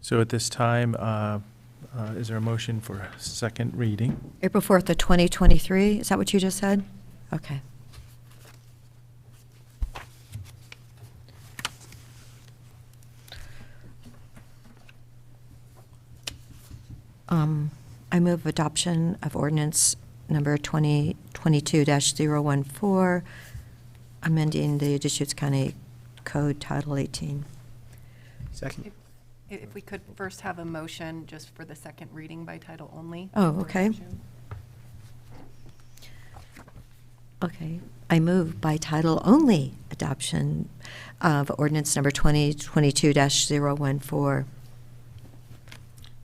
So at this time, uh, uh, is there a motion for second reading? April 4th of 2023, is that what you just said? Okay. Um, I move adoption of ordinance number 2022-014, amending the Deschutes County Code Title 18. Second. If if we could first have a motion just for the second reading by title only. Oh, for okay. adoption. Okay, I move by title only adoption of ordinance number 2022-014.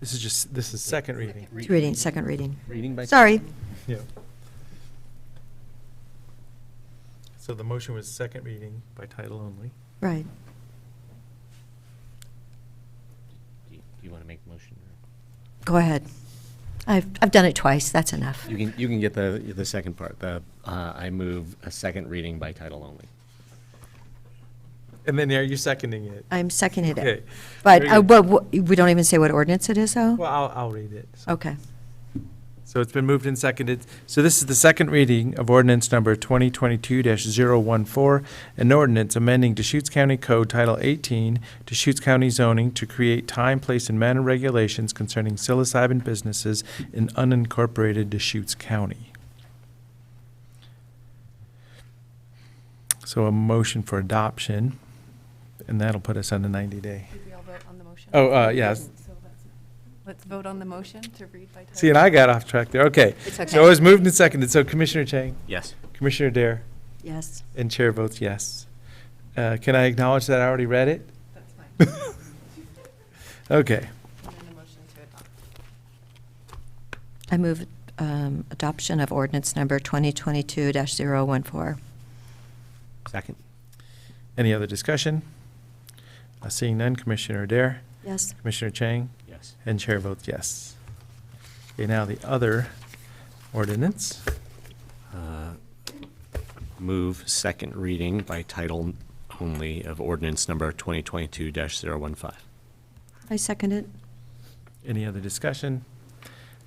This is just, this is second reading. It's Reading, second reading. Reading by. Sorry, Yeah. So the motion was second reading by title only. right. Do you- do you want to make a motion? or- Go ahead. I've, I've done it twice, that's enough. You can, you can get the, the second part, the, uh, I move a second reading by title only. And then are you seconding it? I'm seconding Okay. it. But, Very uh, good. but wha- we don't even say what ordinance it is, though? Well, I'll, I'll read it. Okay. So it's been moved and seconded. So this is the second reading of ordinance number 2022-014, an ordinance amending Deschutes County Code Title 18, Deschutes County zoning to create time, place, and manner regulations concerning psilocybin businesses in unincorporated Deschutes County. So a motion for adoption, and that'll put us on the 90-day. Did we all vote on the motion? Oh, uh, yes. So that's- Let's vote on the motion to read by title. See, and I got off track there. Okay. It's okay. So it was moved and seconded. So Commissioner Chang, Yes. Commissioner Dare, Yes. And chair votes yes. Uh, Can I acknowledge that I already read it? That's fine. And Okay. then the motion to adopt. I move um, adoption of ordinance number 2022-014. Second? Any other discussion? Uh, Seeing none, Commissioner Dare, Yes. Commissioner Chang, Yes. and chair votes yes. Okay, now the other ordinance. Move second reading by title only of ordinance number 2022-015. I second it. Any other discussion?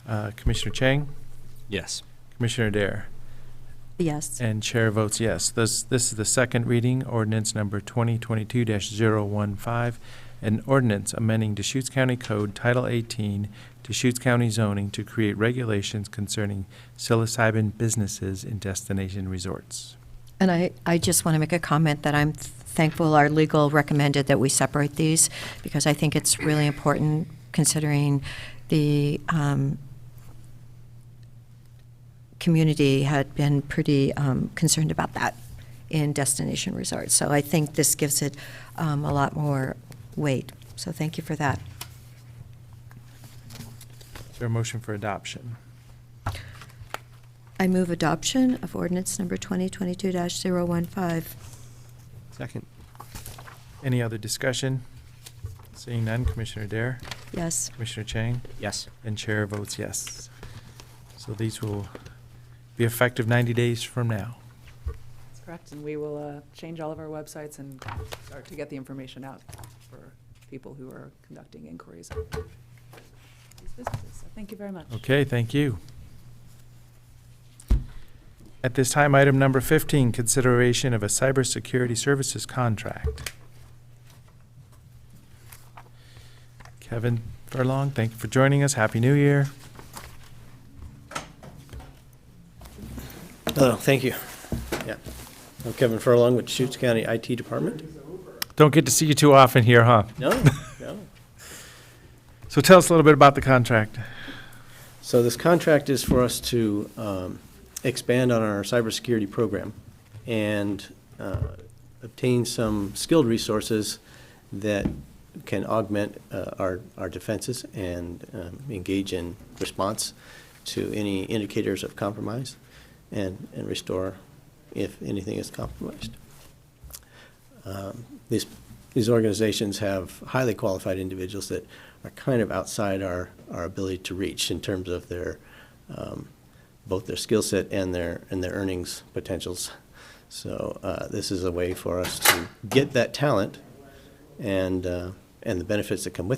Uh, Commissioner Chang, Yes. Commissioner Dare, Yes. and chair votes yes. This, this is the second reading, ordinance number 2022-015, an ordinance amending Deschutes County Code Title 18, Deschutes County zoning to create regulations concerning psilocybin businesses in destination resorts. And I, I just want to make a comment that I'm thankful our legal recommended that we separate these because I think it's really important considering the um, community had been pretty um, concerned about that in destination resorts. So I think this gives it um, a lot more weight. So thank you for that. Is there a motion for adoption? I move adoption of ordinance number 2022-015. Second? Any other discussion? Seeing none, Commissioner Dare, Yes. Commissioner Chang, Yes. and Chair votes yes. So these will be effective 90 days from now. That's correct, and we will uh, change all of our websites and start to get the information out for people who are conducting inquiries on these businesses. So Thank you very much. Okay, thank you. At this time, item number 15, consideration of a cybersecurity services contract. Kevin Furlong, thank you for joining us. Happy New Year. Oh, thank you. Yeah. I'm Kevin Furlong with Deschutes County IT Department. Don't get to see you too often here, huh? No, no. So tell us a little bit about the contract. So this contract is for us to um, expand on our cybersecurity program and uh, obtain some skilled resources that can augment uh, our, our defenses and um, engage in response to any indicators of compromise and, and restore if anything is compromised. um, these, these organizations have highly qualified individuals that are kind of outside our, our ability to reach in terms of their, um, both their skill set and their, and their earnings potentials. So uh, this is a way for us to get that talent and, uh, and the benefits that come with